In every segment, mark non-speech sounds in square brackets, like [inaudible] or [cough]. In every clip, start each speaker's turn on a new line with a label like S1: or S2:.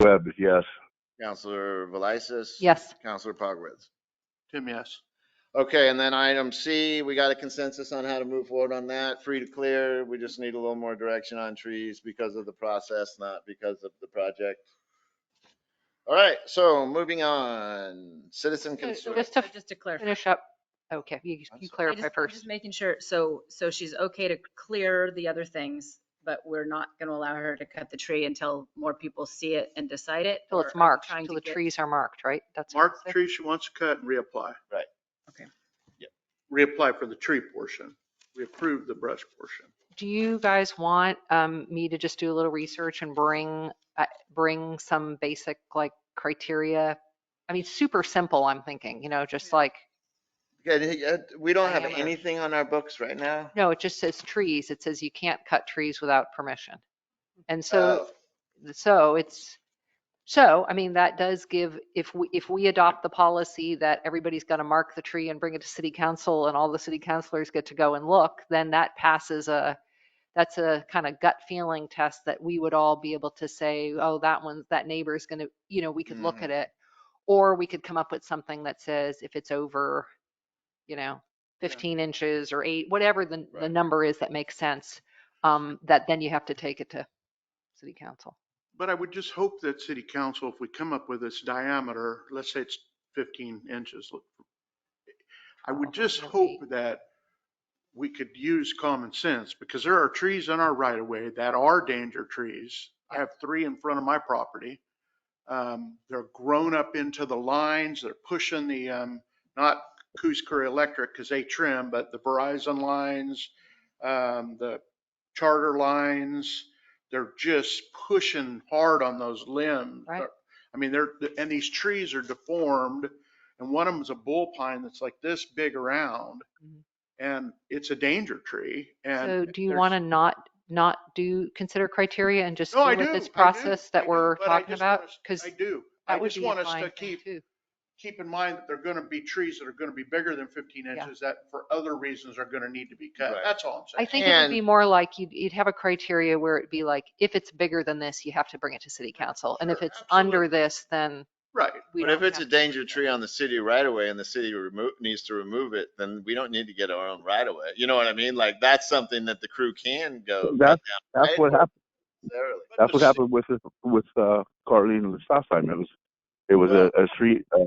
S1: Webb, yes.
S2: Counselor Velisis.
S3: Yes.
S2: Counselor Pogwitz.
S4: Tim, yes.
S2: Okay, and then item C, we got a consensus on how to move forward on that. Free to clear, we just need a little more direction on trees because of the process, not because of the project. All right, so moving on, citizen
S3: So- so
S2: concern.
S3: just to
S5: Just to clarify,
S3: finish up, okay, you
S2: I'm
S3: you
S2: sorry.
S5: I just-
S3: clarify
S5: I'm
S3: first.
S5: just making sure, so, so she's okay to clear the other things, but we're not going to allow her to cut the tree until more people see it and decide it?
S3: Till
S5: or are
S3: it's
S5: we
S3: marked,
S5: trying
S3: till
S5: to
S3: the
S5: get-
S3: trees are marked, right? That's what
S4: Mark
S3: it
S4: the
S3: said?
S4: tree she wants to cut and reapply.
S2: Right.
S5: Okay.
S2: Yep.
S4: Reapply for the tree portion. We approved the brush portion.
S3: Do you guys want um, me to just do a little research and bring, uh, bring some basic like criteria? I mean, super simple, I'm thinking, you know, just like,
S2: Okay, uh, We don't have
S3: Diameter.
S2: anything on our books right now.
S3: no, it just says trees. It says you can't cut trees without permission. And
S5: Oh.
S2: Oh.
S3: so so it's, so, I mean, that does give, if we, if we adopt the policy that everybody's going to mark the tree and bring it to city council and all the city councilors get to go and look, then that passes a, that's a kind of gut feeling test that we would all be able to say, oh, that one, that neighbor's going to, you know, we could look
S2: Mhm.
S3: at it. Or we could come up with something that says if it's over, you know, 15 inches or eight, whatever the, the
S2: Right.
S3: number is that makes sense, um, that then you have to take it to city council.
S4: But I would just hope that city council, if we come up with this diameter, let's say it's 15 inches. look, I would just
S3: Or
S4: hope
S3: eight.
S4: that we could use common sense because there are trees in our right of way that are danger trees. I have three in front of my property. Um, They're grown up into the lines. They're pushing the, um, not Coos Curry Electric because they trim, but the Verizon lines, um, the charter lines, they're just pushing hard on those limbs.
S3: Right.
S4: I mean, they're, and these trees are deformed and one of them is a bull pine that's like this big around
S3: Mhm.
S4: and it's a danger tree and.
S3: So do you
S4: there's-
S3: want to not, not do, consider criteria and just
S4: No,
S3: do
S4: I
S3: with
S4: do,
S3: this
S4: I do,
S3: process
S4: I
S3: that
S4: do,
S3: we're
S4: but I
S3: talking
S4: just want
S3: about?
S4: us-
S3: Because
S4: I do.
S3: that
S4: I
S3: would
S4: just
S3: be a
S4: want us to
S3: fine thing
S4: keep,
S3: too.
S4: keep in mind that they're going to be trees that are going to be bigger than 15
S3: Yeah.
S4: inches that for other reasons are going to need to be cut.
S2: Right.
S4: That's all I'm
S3: I
S4: saying.
S3: think it would
S2: And-
S3: be more like you'd, you'd have a criteria where it'd be like, if it's bigger than this, you have to bring it to city council. And if
S4: Sure,
S3: it's under
S4: absolutely.
S3: this,
S4: [laughs]
S3: then
S4: Right.
S3: we
S2: But if
S3: don't
S2: it's a
S3: have-
S2: danger tree on the city right away, and the city remo needs to remove it, then we don't need to get our own right away. You know what I mean? Like, that's something that the crew can go.
S1: That's, that's
S2: Right.
S1: what happened,
S2: necessarily.
S1: that's what
S4: [laughs] But the
S1: happened with, this- with, uh, Carlene and the stop sign. It was, it was a, a tree, uh,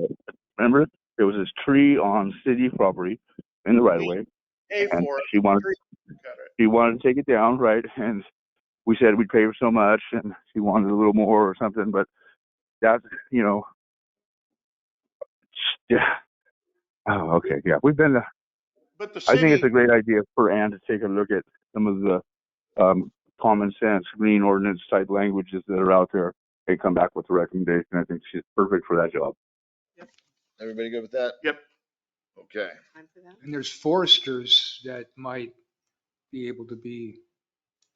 S1: remember? There was this tree on city property in the right of way
S4: Pay
S1: and
S4: for it,
S1: she wanted,
S4: cut it.
S1: she wanted to take it down, right? And we said we'd pay her so much and she wanted a little more or something, but that's, you know, yeah. Oh, okay, yeah. We've been,
S4: But the
S1: I think it's a
S4: city-
S1: great idea for Ann to take a look at some of the um, common sense green ordinance type languages that are out there and come back with a recommendation. I think she's perfect for that job.
S2: Everybody good with that?
S4: Yep.
S2: Okay.
S6: And there's foresters that might be able to be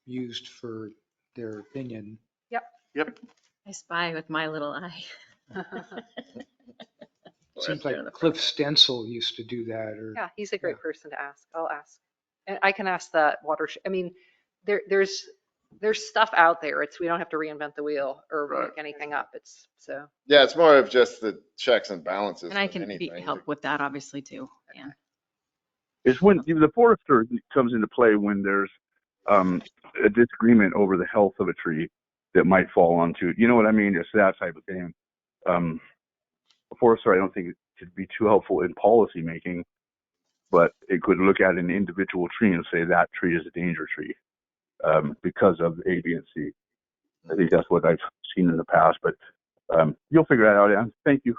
S6: used for their opinion.
S5: I spy with my
S3: [laughs]
S5: little eye.
S6: Seems like Cliff Stensel used to do that or.
S3: [laughs] Yeah, he's a great person to ask. I'll ask. And I can ask that watershed, I mean, there, there's, there's stuff out there. It's, we don't have to reinvent the wheel or
S4: Right.
S3: make anything up. It's, so.
S2: Yeah, it's more of just the checks and balances.
S5: And I
S2: than
S5: can be-
S2: anything.
S5: help with that, obviously, too. Yeah.
S1: It's when the forester comes into play when there's um, a disagreement over the health of a tree that might fall onto. You know what I mean? It's that type of thing. Um, a forester, I don't think it could be too helpful in policy making, but it could look at an individual tree and say that tree is a danger tree um, because of A, B, and C. I think that's what I've seen in the past, but um, you'll figure that out. Ann. Thank you.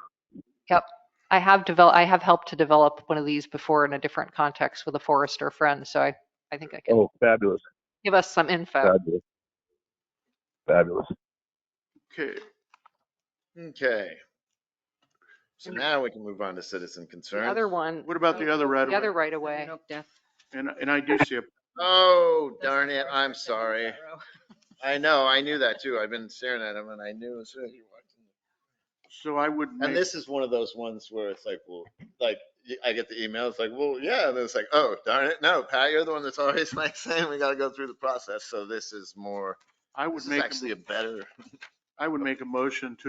S3: I have developed, I have helped to develop one of these before in a different context with a forester friend, so I, I think I can
S1: Oh, fabulous,
S3: give us some info.
S1: fabulous, fabulous.
S4: Okay.
S2: Okay. So now we can move on to citizen
S3: The
S2: concerns.
S3: other one,
S4: What about the other right
S3: the
S4: of
S3: other
S4: way?
S3: right away.
S5: Southern Oak Death.
S4: And, and I do see a
S2: Oh,
S5: That's the
S2: darn it.
S5: first
S2: I'm
S5: person in
S2: sorry.
S5: that row.
S2: I know, I knew that too. I've been staring at him and I knew as soon as you walked in.
S4: So I would
S2: And
S4: make,
S2: this is one of those ones where it's like, well, like, y- I get the email, it's like, well, yeah, and then it's like, oh, darn it, no, Pat, you're the one that's always [laughs] like saying we gotta go through the process, so this is more,
S4: I would
S2: this is
S4: make, a-
S2: actually a better.
S4: I would make a motion to